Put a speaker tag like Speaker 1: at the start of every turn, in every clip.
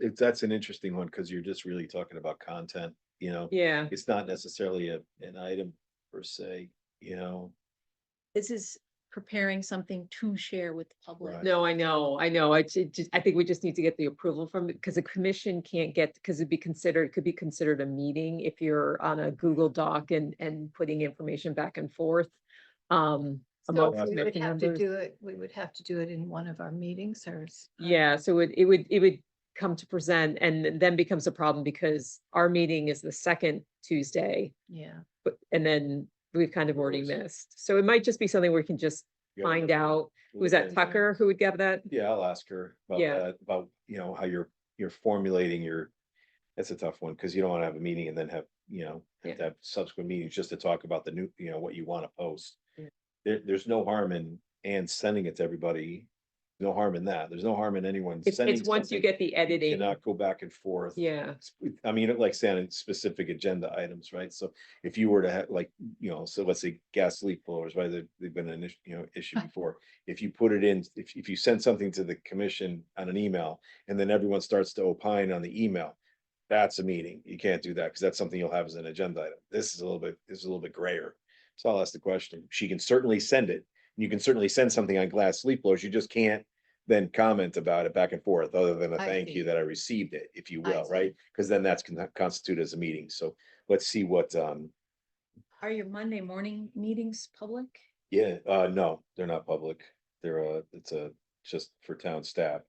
Speaker 1: it's, that's an interesting one, cause you're just really talking about content, you know?
Speaker 2: Yeah,
Speaker 1: It's not necessarily a, an item per se, you know?
Speaker 3: This is preparing something to share with the public.
Speaker 1: Right.
Speaker 2: no, I know, I know. I just, I think we just need to get the approval from, because the commission can't get, because it'd be considered, could be considered a meeting if you're on a Google Doc and, and putting information back and forth. Um,
Speaker 4: So
Speaker 2: amongst
Speaker 4: we would
Speaker 2: committee
Speaker 4: have to
Speaker 2: members.
Speaker 4: do it, we would have to do it in one of our meetings or. s-
Speaker 2: Yeah, so it, it would, it would come to present and then becomes a problem because our meeting is the second Tuesday.
Speaker 4: Yeah,
Speaker 2: But, and then we've kind of already
Speaker 1: Always.
Speaker 2: missed. So it might just be something we can just
Speaker 1: you know,
Speaker 2: find
Speaker 1: we'll-
Speaker 2: out.
Speaker 1: we'll look
Speaker 2: Was that
Speaker 1: into it.
Speaker 2: Tucker who would get that?
Speaker 1: Yeah, I'll ask her about
Speaker 2: Yeah.
Speaker 1: that, about, you know, how you're, you're formulating your, that's a tough one, cause you don't wanna have a meeting and then have, you know,
Speaker 2: Yeah.
Speaker 1: have to have subsequent meetings just to talk about the new, you know, what you wanna post.
Speaker 2: Yeah.
Speaker 1: There, there's no harm in, and sending it to everybody, no harm in that, there's no harm in anyone.
Speaker 2: It's,
Speaker 1: sending
Speaker 2: it's once you
Speaker 1: something
Speaker 2: get the
Speaker 1: you
Speaker 2: editing.
Speaker 1: Cannot go back and forth.
Speaker 2: Yeah,
Speaker 1: sp- I mean, like saying specific agenda items, right? So if you were to have like, you know, so let's say gas leak blowers, right? They've, they've been an issue, you know, issue before. If you put it in, if, if you send something to the commission on an email and then everyone starts to opine on the email, that's a meeting. You can't do that because that's something you'll have as an agenda item. This is a little bit, this is a little bit grayer. So I'll ask the question. She can certainly send it. and You can certainly send something on glass leak blowers. You just can't then comment about it back and forth, other than a
Speaker 4: I
Speaker 1: thank you
Speaker 4: see.
Speaker 1: that I received it, if you
Speaker 4: I
Speaker 1: will,
Speaker 4: see.
Speaker 1: right? Because then that's gonna constitute as a meeting. So let's see what, um,
Speaker 3: Are your Monday morning meetings public?
Speaker 1: yeah, uh, no, they're not public. They're, uh, it's a, just for town staff.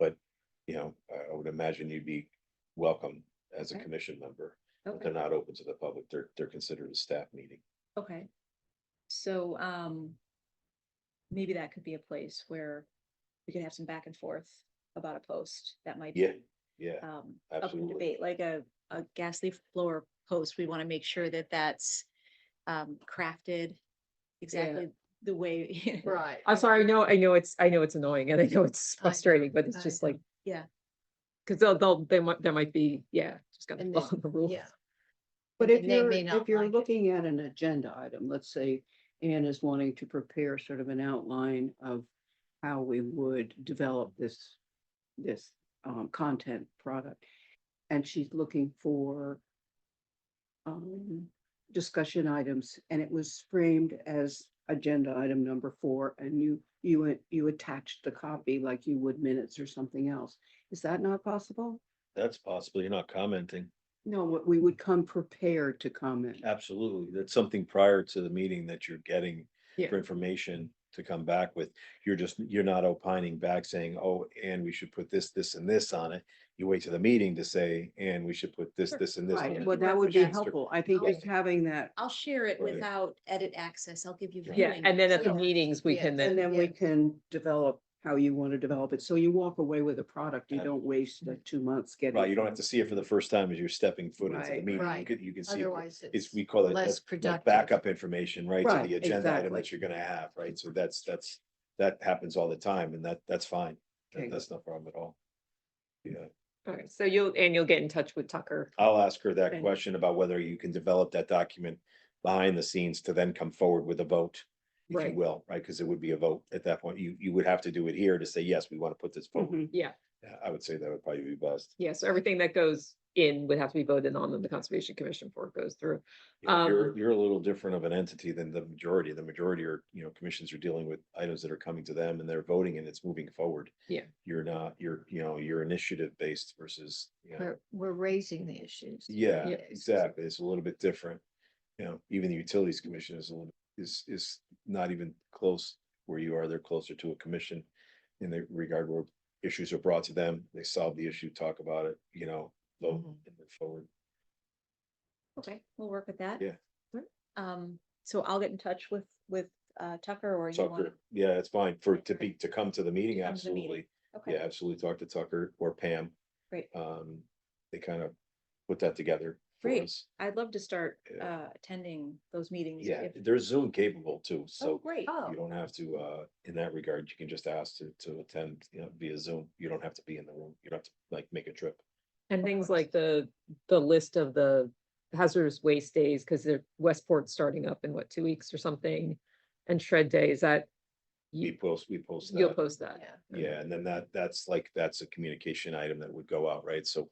Speaker 1: But, you know, I, I would imagine you'd be welcome as a
Speaker 3: Okay.
Speaker 1: commission member. but
Speaker 3: Okay,
Speaker 1: They're not open to the public. They're, they're considered a staff meeting.
Speaker 3: okay. So, um, maybe that could be a place where we could have some back and forth about a post that might.
Speaker 1: Yeah,
Speaker 3: be,
Speaker 1: yeah,
Speaker 3: Um, up for
Speaker 1: absolutely.
Speaker 3: debate, like a, a gas leaf blower post, we want to make sure that that's, um, crafted exactly the way.
Speaker 4: right.
Speaker 2: I'm sorry, I know, I know it's, I know it's annoying and I know it's
Speaker 4: I know,
Speaker 2: frustrating, but it's
Speaker 4: I
Speaker 2: just
Speaker 4: know.
Speaker 2: like.
Speaker 3: Yeah.
Speaker 2: Cause they'll, they'll, they might, there might be, yeah, just gotta
Speaker 4: And
Speaker 2: follow
Speaker 4: then-
Speaker 2: the rules.
Speaker 4: Yeah,
Speaker 5: But
Speaker 4: and
Speaker 5: if
Speaker 4: they
Speaker 5: you're,
Speaker 4: may not
Speaker 5: if you're
Speaker 4: like it.
Speaker 5: looking at an agenda item, let's say Anne is wanting to prepare sort of an outline of how we would develop this, this um, content product. And she's looking for um, discussion items and it was framed as agenda item number four and you, you, a- you attached the copy like you would minutes or something else. Is that not possible?
Speaker 1: That's possible. You're not commenting.
Speaker 5: No, we- we would come prepared to comment.
Speaker 1: Absolutely. That's something prior to the meeting that you're getting
Speaker 2: Yeah.
Speaker 1: for information to come back with. You're just, you're not opining back saying, oh, and we should put this, this and this on it. You wait to the meeting to say, and we should put this,
Speaker 3: Sure.
Speaker 1: this and this. on
Speaker 5: Right,
Speaker 1: it."
Speaker 5: well,
Speaker 3: can
Speaker 5: that would be
Speaker 3: reference
Speaker 1: it.
Speaker 5: helpful. I think
Speaker 3: Okay.
Speaker 5: just having that,
Speaker 3: I'll share it
Speaker 1: Right.
Speaker 3: without edit access. I'll give you.
Speaker 1: Yeah,
Speaker 2: Yeah,
Speaker 3: viewing
Speaker 2: and then at the
Speaker 4: Yeah.
Speaker 3: access.
Speaker 2: meetings, we
Speaker 4: Yeah,
Speaker 2: can
Speaker 5: and
Speaker 2: then,
Speaker 5: then we
Speaker 4: Yeah.
Speaker 5: can develop how you want to develop it. So you walk away with a product. You
Speaker 1: Yeah.
Speaker 5: don't waste the two months getting.
Speaker 1: Right, you don't have to see it for the first time as you're stepping foot into the
Speaker 5: Right,
Speaker 1: meeting. You
Speaker 4: right.
Speaker 1: could, you can see. it.
Speaker 4: otherwise
Speaker 1: It's,
Speaker 4: it's,
Speaker 1: we call it
Speaker 4: less
Speaker 1: that's like
Speaker 4: productive.
Speaker 1: backup information, right, to
Speaker 5: Right,
Speaker 1: the agenda item
Speaker 5: exactly.
Speaker 1: that you're gonna have, right? So that's, that's, that happens all the time and that, that's fine. That-
Speaker 5: Okay.
Speaker 1: That's no problem at all. Yeah.
Speaker 2: alright, so you'll, and you'll get in touch with Tucker.
Speaker 1: I'll ask her that
Speaker 5: Okay.
Speaker 1: question about whether you can develop that document behind the scenes to then come forward with a vote. If you
Speaker 2: Right.
Speaker 1: will, right? Because it would be a vote at that point. You, you would have to do it here to say, yes, we want to put this forward.
Speaker 5: Mhm.
Speaker 2: Mm-hmm.
Speaker 1: Yeah, I would say that would probably be best.
Speaker 2: Yeah, so everything that goes in would have to be voted on in the Conservation Commission before it goes through.
Speaker 1: You know, You're,
Speaker 2: Um,
Speaker 1: you're a little different of an entity than the majority. The majority are, you know, commissions are dealing with items that are coming to them and they're voting and it's moving forward.
Speaker 2: Yeah.
Speaker 1: You're not, you're, you know, you're initiative based versus, you know.
Speaker 4: we're, we're raising the issues.
Speaker 1: Yeah,
Speaker 2: Yeah.
Speaker 1: exactly. It's a little bit different. You know, even the utilities commission is a little, is, is not even close where you are. They're closer to a commission. In the regard where issues are brought to them, they solve the issue, talk about it, you know,
Speaker 3: Mm-hmm.
Speaker 1: vote
Speaker 4: Mhm.
Speaker 1: and move forward.
Speaker 3: Okay, we'll work with that.
Speaker 1: Yeah.
Speaker 2: Sure.
Speaker 3: Um, so I'll get in touch with, with uh, Tucker or you want.
Speaker 1: Tucker, yeah, it's fine for, to
Speaker 3: Okay.
Speaker 1: be, to come to the meeting,
Speaker 3: To come to the meeting.
Speaker 1: absolutely. Yeah,
Speaker 3: Okay,
Speaker 1: absolutely. Talk to Tucker or Pam.
Speaker 3: Great.
Speaker 1: Um, they kind of put that together for
Speaker 3: Great.
Speaker 1: us.
Speaker 3: I'd love to start
Speaker 1: Yeah.
Speaker 3: uh, attending those meetings.
Speaker 1: Yeah,
Speaker 3: if-
Speaker 1: they're Zoom capable too,
Speaker 3: Oh,
Speaker 1: so
Speaker 3: great.
Speaker 4: Oh,
Speaker 1: You don't have to, uh, in that regard, you can just ask to, to attend, you know, via Zoom. You don't have to be in the room. You don't have to like make a trip.
Speaker 2: And things
Speaker 4: course.
Speaker 2: like the, the list of the hazardous waste days, because they're Westport's starting up in what, two weeks or something? And shred day, is that
Speaker 1: we post, we post
Speaker 2: You'll
Speaker 1: that.
Speaker 2: post that.
Speaker 4: yeah.
Speaker 1: Yeah, and then that, that's like, that's a communication item that would go out, right? So